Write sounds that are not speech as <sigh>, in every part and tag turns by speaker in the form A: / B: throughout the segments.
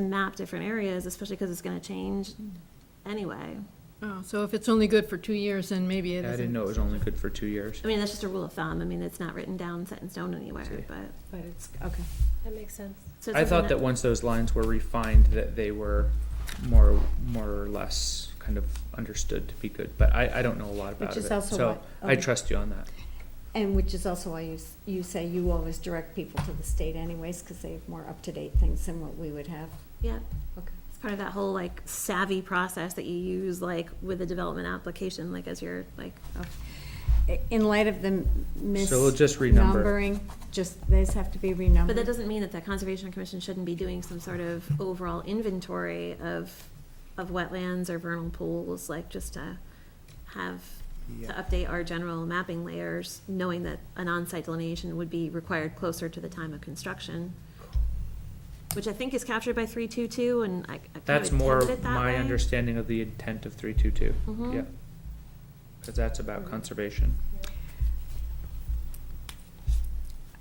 A: and map different areas, especially because it's gonna change anyway.
B: Oh, so if it's only good for two years, then maybe it
C: I
B: isn't.
C: didn't know it was only good for two years.
A: I mean, that's just a rule of thumb. I mean, it's not written down, set in stone anywhere,
C: See.
A: but.
B: But it's, okay.
D: That makes sense.
A: so it's
C: I thought
A: something
C: that once those lines were refined, that they were more, more or less kind of understood to be good, but I, I don't know a lot about
E: Which
C: it,
E: is also
C: so
E: why-
C: I
E: okay.
C: trust you on that.
E: And which is also why you, s- you say you always direct people to the state anyways, because they have more up-to-date things than what we would have.
A: Yeah,
E: Okay.
A: it's part of that whole like savvy process that you use like with a development application, like as you're like,
E: I- In light of the
C: So we'll
E: misnumbering,
C: just renumber.
E: just, these have to be renumbered.
A: but that doesn't mean that the Conservation Commission shouldn't be doing some sort of overall inventory of, of wetlands or vernal pools, like just to have, to update our general mapping layers, knowing that an on-site delineation would be required closer to the time of construction. Which I think is captured by three-two-two and I. I kind of
C: That's more
A: intended it that
C: my
A: way.
C: understanding of the intent of three-two-two,
E: Mm-hmm.
A: Mhm.
C: yeah. Cause that's about conservation.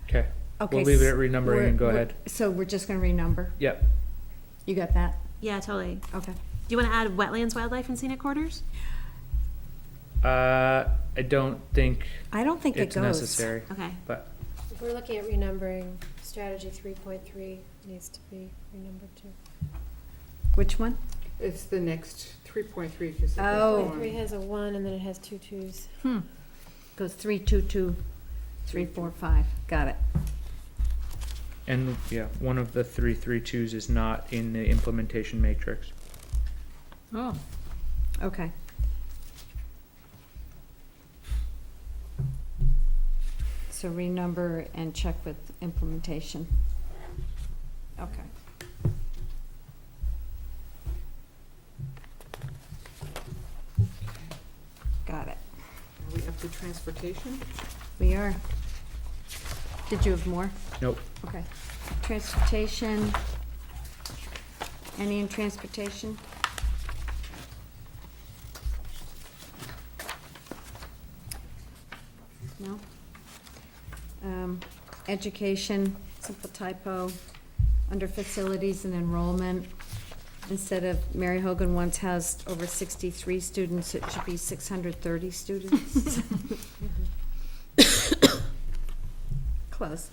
C: Okay,
E: Okay,
C: we'll leave it
E: s-
C: at renumbering
E: we're-
C: and go
E: we're-
C: ahead.
E: So we're just gonna renumber?
C: Yep,
E: You got that?
A: Yeah, totally.
E: Okay.
A: Do you want to add wetlands, wildlife, and scenic corridors?
C: uh, I don't think
E: I don't think it
C: it's
E: goes.
C: necessary,
A: Okay.
C: but
D: If we're looking at renumbering, strategy three point three needs to be renumbered too.
E: Which one?
F: It's the next three point three, because.
E: Oh.
D: Point three has a one and then it has two twos.
B: Hmm,
E: Goes three, two, two, three, four, five. Got it.
C: And, yeah, one of the three, three twos is not in the implementation matrix.
B: oh,
E: Okay. So renumber and check with implementation. Okay. Got it.
F: Are we up to transportation?
E: We are. Did you have more?
C: Nope.
E: Okay. Transportation. Any in transportation? No? Um, Education, simple typo, under facilities and enrollment. Instead of Mary Hogan once housed over sixty-three students, it should be six hundred thirty students. Close.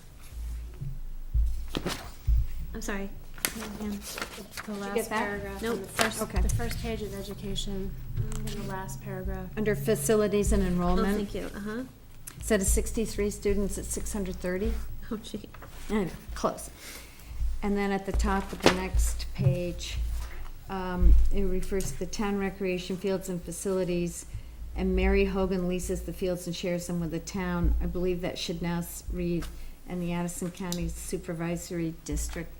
A: I'm sorry.
D: The
E: get that?
D: last paragraph.
A: Nope.
D: on the first-
E: Okay.
D: The first page of education, and the last paragraph.
E: Under facilities and
A: Oh,
E: enrollment,
A: thank you. Uh-huh. <laughs>
E: instead of sixty-three students at six hundred thirty?
A: Oh, gee.
E: Close. And then at the top of the next page, um, it refers to the town recreation fields and facilities, and Mary Hogan leases the fields and shares them with the town. I believe that should now s- read, and the Addison County Supervisory District,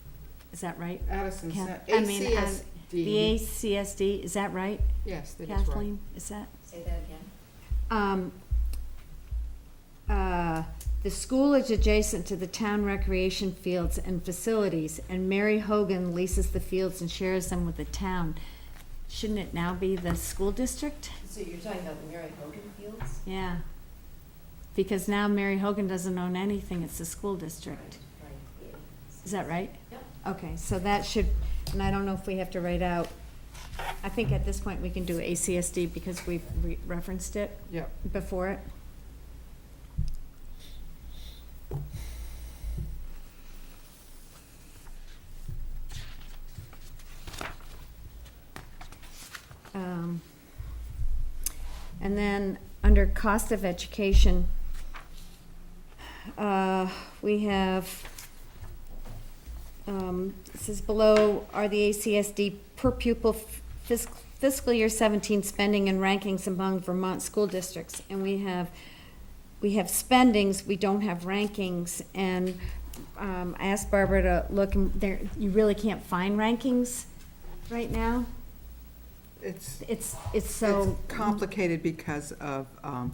E: is that right?
F: Addison
E: Ca-
F: Cen-
E: I mean, um, The
F: ACSD.
E: ACSD, is that right,
F: Yes, that is right.
E: Kathleen? Is that?
G: Say that again.
E: Um, uh, The school is adjacent to the town recreation fields and facilities, and Mary Hogan leases the fields and shares them with the town. Shouldn't it now be the school district?
G: So you're talking about the Mary Hogan Fields?
E: Yeah. Because now Mary Hogan doesn't own anything, it's the school district.
G: Right.
E: Is that right?
G: Yep.
E: Okay, so that should, and I don't know if we have to write out, I think at this point we can do ACSD because we've re- referenced it.
F: Yep.
E: before it. Um, And then, under cost of education, uh, we have, um, it says below are the ACSD per pupil fiscal, fiscal year seventeen spending and rankings among Vermont school districts. And we have, we have spendings, we don't have rankings. And, um, I asked Barbara to look, and there, you really can't find rankings right now.
F: It's,
E: It's, it's
F: it's
E: so.
F: complicated because of um,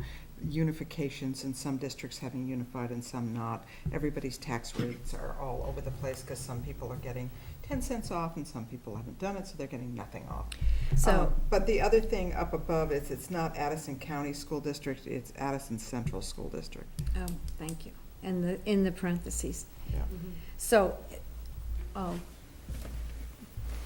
F: unifications and some districts having unified and some not. Everybody's tax rates are all over the place because some people are getting ten cents off and some people haven't done it, so they're getting nothing off.
E: So,
F: Um, But the other thing up above is it's not Addison County School District, it's Addison Central School District.
E: oh, thank you. And the, in the parentheses.
F: Yeah.
E: So, oh,